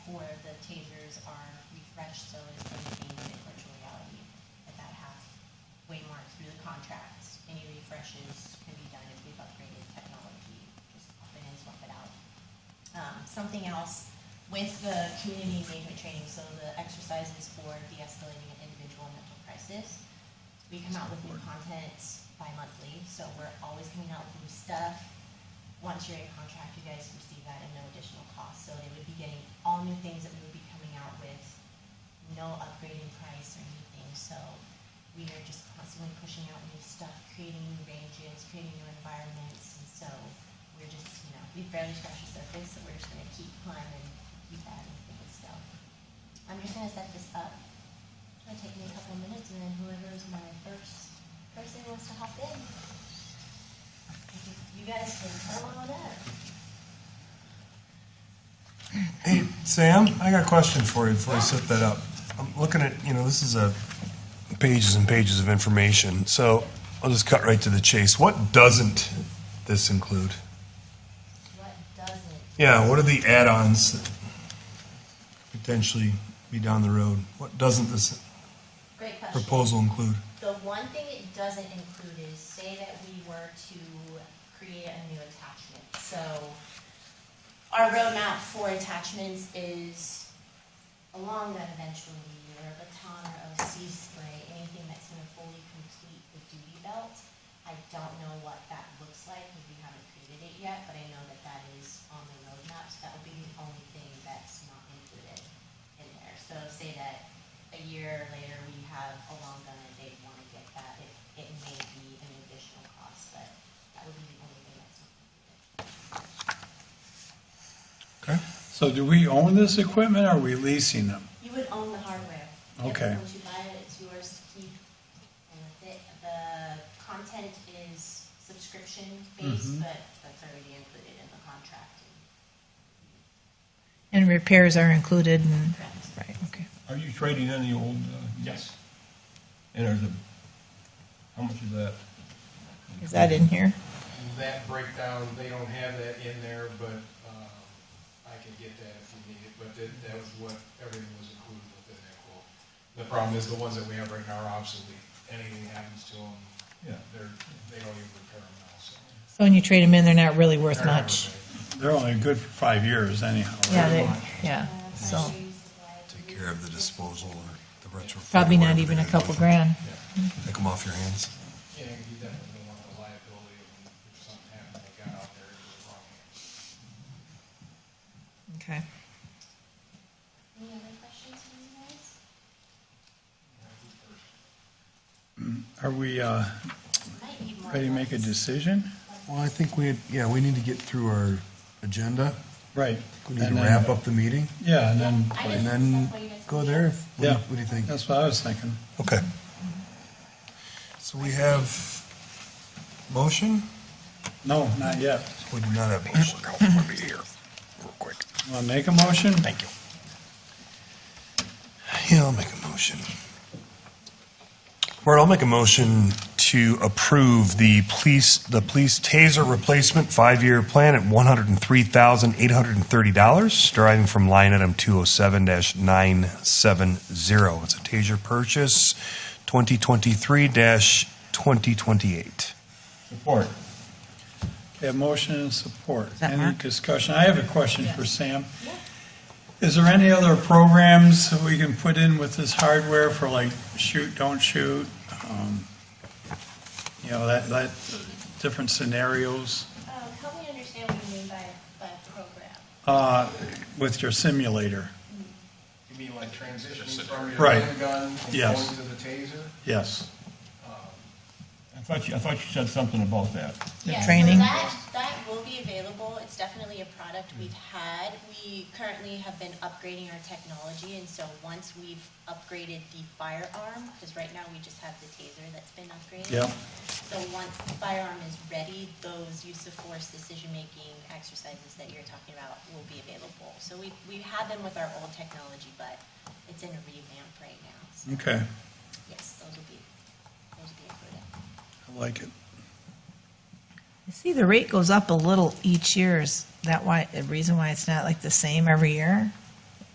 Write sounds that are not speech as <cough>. tasers are refreshed so it's unchanged in virtual reality. But that halfway mark through the contract, any refreshes can be done if we've upgraded technology, just swap it in, swap it out. Um, something else with the community engagement training, so the exercises for de-escalating an individual mental crisis. We come out with new content bi-monthly, so we're always coming out with new stuff. Once you're in contract, you guys receive that at no additional cost, so they would be getting all new things that we would be coming out with, no upgrade in price or anything, so we are just constantly pushing out new stuff, creating new ranges, creating new environments, and so we're just, you know, we've barely scratched the surface, so we're just gonna keep climbing, keep adding things, so. I'm just gonna set this up, it's gonna take me a couple of minutes, and then whoever is my first person wants to hop in. You guys can come on up. Hey, Sam, I got a question for you before I set that up. I'm looking at, you know, this is a pages and pages of information, so I'll just cut right to the chase. What doesn't this include? What doesn't, Yeah, what are the add-ons that could potentially be down the road? What doesn't this great question. proposal include? The one thing it doesn't include is say that we were to create a new attachment. So our roadmap for attachments is along that eventually, or a baton or OC spray, anything that's gonna fully complete the duty belt. I don't know what that looks like, because we haven't created it yet, but I know that that is on the roadmap, so that would be the only thing that's not included in there. So say that a year later, we have a long gun and they wanna get that, it, it may be an additional cost, but that would be the only thing that's not included. Okay. So do we own this equipment or are we leasing them? You would own the hardware. Okay. Once you buy it, it's yours to keep. And that's it. The content is subscription based, Mhm. but that's already included in the contract. And repairs are included and, Correct. right, okay. Are you trading in the old? Uh, yes. And there's a, how much is that? Is that in here? that breakdown, they don't have that in there, but um, I can get that if you need it, but that, that was what, everything was included within that quote. The problem is the ones that we have right now are obsolete. Anything happens to them, Yeah. they're, they don't even repair them now, so. So when you trade them in, they're not really worth They're not much. repaired. They're only good for five years anyhow. right? Yeah, they, yeah, so Take care of the disposal or the retrofit. probably not whatever even they a do. couple grand. Take them off your hands. Yeah, you definitely don't want the liability of if something happened, they got out there, it was wrong. Okay. Any other questions from you guys? Are we, uh, Might need more. ready to make a thoughts. decision? Well, I think we, yeah, we need to get through our agenda. Right. We need to And then- wrap up the meeting. Yeah, and then, I And just- then that's why you guys- go there. if- What do you- Yeah. what do you think? that's what I was thinking. Okay. So we have motion? No, not yet. We do not have <clears throat> motion. Let me here, real quick. Want to make a motion? Thank you. Yeah, I'll make a motion. Bert, I'll make a motion to approve the police, the police taser replacement five-year plan at one hundred and three thousand, eight hundred and thirty dollars, deriving from line item two oh seven nine seven zero. It's a taser purchase, twenty twenty-three twenty twenty-eight. Support. Okay, a motion and support. that Any Mark? discussion? I have a question for Sam. Is there any other programs that we can put in with this hardware for like shoot, don't shoot? um, You know, that, that, different scenarios, Um, help me understand what you mean by, by program. uh, with your simulator? You mean like transitioning from your Right. handgun and Yes. going to the taser? Yes. I thought you, I thought you said something about that. The Yeah, training. So that, that will be available. It's definitely a product we've had. We currently have been upgrading our technology, and so once we've upgraded the firearm, because right now we just have the taser that's been upgraded. Yep. So once the firearm is ready, those use of force decision-making exercises that you're talking about will be available. So we, we had them with our old technology, but it's in a revamp right now. So Okay, yes, those will be, those will be included. I like it. You see, the rate goes up a little each year. Is that why, the reason why it's not like the same every year?